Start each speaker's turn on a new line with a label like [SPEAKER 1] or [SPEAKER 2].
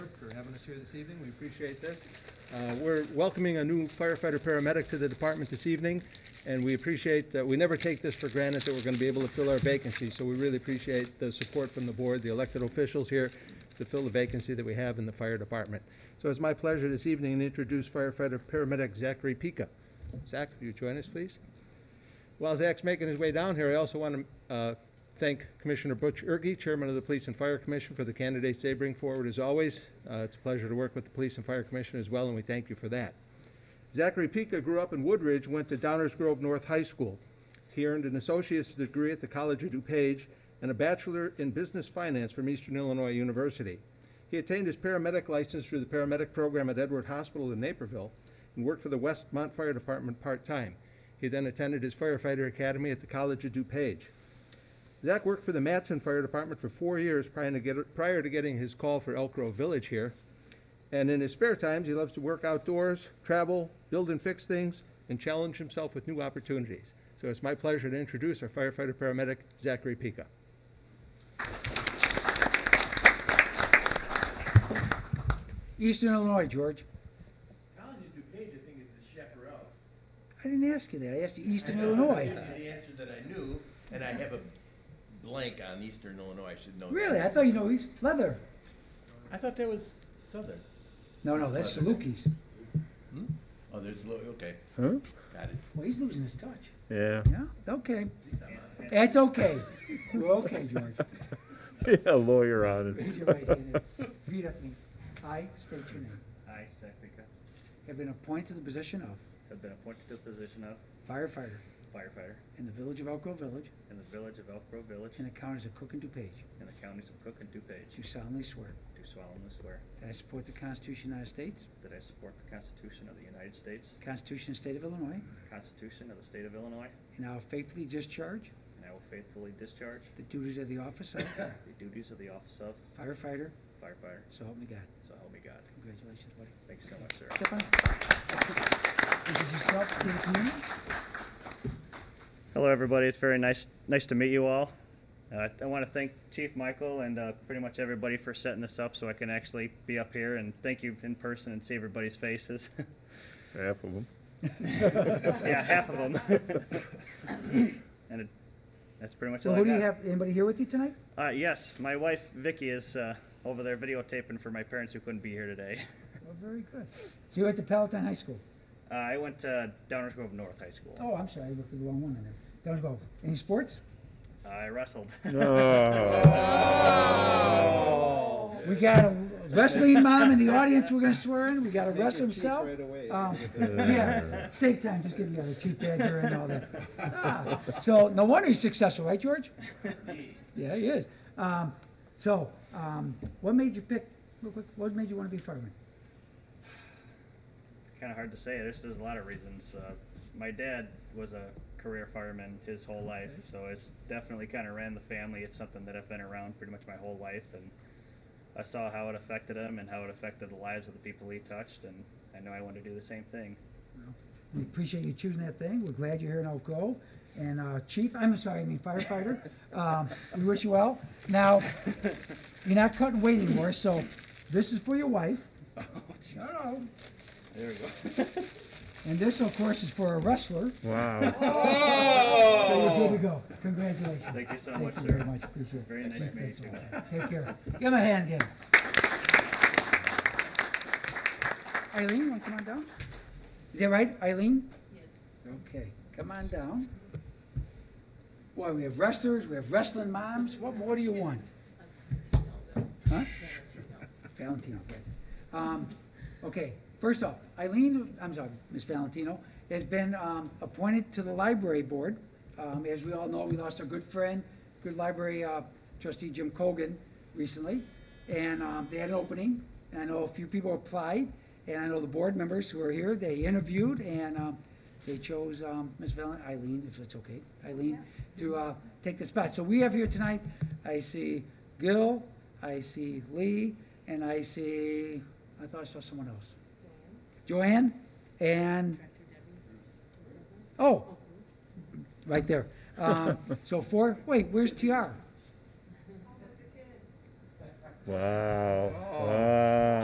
[SPEAKER 1] us here this evening. We appreciate this. Uh, We're welcoming a new firefighter paramedic to the department this evening, and we appreciate that, we never take this for granted that we're going to be able to fill our vacancy, so we really appreciate the support from the board, the elected officials here, to fill the vacancy that we have in the fire department. So it's my pleasure this evening to introduce firefighter paramedic Zachary Pica. Zach, will you join us, please? While Zach's making his way down here, I also want to uh, thank Commissioner Butch Ergy, Chairman of the Police and Fire Commission, for the candidates they bring forward as always. Uh, It's a pleasure to work with the Police and Fire Commission as well, and we thank you for that. Zachary Pica grew up in Woodridge, went to Downers Grove North High School. He earned an associate's degree at the College of DuPage and a bachelor in business finance from Eastern Illinois University. He attained his paramedic license through the paramedic program at Edward Hospital in Naperville and worked for the Westmont Fire Department part-time. He then attended his firefighter academy at the College of DuPage. Zach worked for the Matson Fire Department for four years prior to, get, prior to getting his call for Elk Grove Village here. And in his spare times, he loves to work outdoors, travel, build and fix things, and challenge himself with new opportunities. So it's my pleasure to introduce our firefighter paramedic, Zachary Pica.
[SPEAKER 2] Eastern Illinois, George.
[SPEAKER 3] College of DuPage, I think, is the Chaparrals.
[SPEAKER 2] I didn't ask you that. I asked you Eastern
[SPEAKER 3] I know, I
[SPEAKER 2] Illinois.
[SPEAKER 3] gave you The answer that I knew, and I have a blank on Eastern Illinois, I should know. that.
[SPEAKER 2] Really? I thought you know East Leather.
[SPEAKER 3] I thought that was Southern.
[SPEAKER 2] No, no, that's Salukis.
[SPEAKER 3] Oh, there's, Lo- okay,
[SPEAKER 4] Huh?
[SPEAKER 3] got it.
[SPEAKER 2] Well, he's losing his touch.
[SPEAKER 4] Yeah.
[SPEAKER 2] Yeah, okay. That's okay. We're okay, George.
[SPEAKER 4] Yeah, lawyer on it.
[SPEAKER 2] Raise your right hand. and Repeat after me. I state your name.
[SPEAKER 5] I, Zach Pica,
[SPEAKER 2] Have been appointed to the position of
[SPEAKER 5] have been appointed to the position of
[SPEAKER 2] firefighter
[SPEAKER 5] firefighter
[SPEAKER 2] in the village of Elk Grove Village
[SPEAKER 5] in the village of Elk Grove Village
[SPEAKER 2] in the counties of Cook and DuPage.
[SPEAKER 5] in the counties of Cook and DuPage.
[SPEAKER 2] Do solemnly swear
[SPEAKER 5] Do solemnly swear
[SPEAKER 2] that I support the Constitution of the United States,
[SPEAKER 5] that I support the Constitution of the United States,
[SPEAKER 2] the Constitution of the State of Illinois,
[SPEAKER 5] the Constitution of the State of Illinois,
[SPEAKER 2] and I will faithfully discharge
[SPEAKER 5] and I will faithfully discharge
[SPEAKER 2] the duties of the office of
[SPEAKER 5] the duties of the office of
[SPEAKER 2] firefighter.
[SPEAKER 5] firefighter.
[SPEAKER 2] So help me God.
[SPEAKER 5] So help me God.
[SPEAKER 2] Congratulations, buddy.
[SPEAKER 5] Thank you so much, sir.
[SPEAKER 2] Step on. Introduce yourself to the community.
[SPEAKER 5] Hello, everybody. It's very nice, nice to meet you all. Uh, I want to thank Chief Michael and uh, pretty much everybody for setting this up so I can actually be up here and thank you in person and see everybody's faces.
[SPEAKER 4] Half of them.
[SPEAKER 5] yeah, half of them. and it, that's pretty much
[SPEAKER 2] So
[SPEAKER 5] all
[SPEAKER 2] who
[SPEAKER 5] I
[SPEAKER 2] do you
[SPEAKER 5] got.
[SPEAKER 2] have, anybody here with you tonight?
[SPEAKER 5] Uh, yes, my wife Vicky is uh, over there videotaping for my parents who couldn't be here today.
[SPEAKER 2] Well, very good. So you're at the Palatine High School?
[SPEAKER 5] Uh, I went to Downers Grove North High School.
[SPEAKER 2] Oh, I'm sorry, I looked at the wrong one in there. Downers Grove. Any sports?
[SPEAKER 5] I wrestled.
[SPEAKER 4] Oh,
[SPEAKER 2] We got a wrestling mom in the audience we're gonna swear in. We got a wrestler himself.
[SPEAKER 5] Uh,
[SPEAKER 2] Um, Yeah, save time, just give the other chief badger and all that. Ah, So no wonder he's successful, right, George? Yeah, he is. Um, So, um, what made you pick, real quick, what made you want to be a fireman?
[SPEAKER 5] it's kind of hard to say. There's, there's a lot of reasons. Uh, my dad was a career fireman his whole life, so it's definitely kind of ran the family. It's something that I've been around pretty much my whole life, and I saw how it affected him and how it affected the lives of the people he touched, and I know I want to do the same thing.
[SPEAKER 2] We appreciate you choosing that thing. We're glad you're here in Oak Grove. And uh, Chief, I'm sorry, I mean firefighter, um, we wish you well. Now, you're not cutting weight anymore, so this is for your wife. No,
[SPEAKER 5] Oh, There we go.
[SPEAKER 2] And this, of course, is for a wrestler.
[SPEAKER 4] Wow.
[SPEAKER 2] So you're good to go. Congratulations.
[SPEAKER 5] Oh. Thank you so much,
[SPEAKER 2] Thank you
[SPEAKER 5] sir.
[SPEAKER 2] very much, appreciate it.
[SPEAKER 5] Very nice to meet you.
[SPEAKER 2] Take care. Give him a hand, give him. Eileen, want to come on down? Is that right, Eileen? Yes. Okay, come on down. Boy, we have wrestlers, we have wrestling moms. What more do you want? Huh? Valentino, okay. Um, okay, first off, Eileen, I'm sorry, Ms. Valentino, has been, um, appointed to the library board. Um, as we all know, we lost our good friend, good library, uh, trustee Jim Cogan recently. And, um, they had an opening, and I know a few people applied, and I know the board members who are here, they interviewed, and, um, they chose, um, Ms. Valen, Eileen, if it's okay, Eileen, to, uh, take the spot. So we have here tonight, I see Gil, I see Lee, and I see, I thought I saw someone else. Joanne and, oh, right there. Um, So four, wait, where's TR?
[SPEAKER 5] Oh.
[SPEAKER 4] Wow. Wow.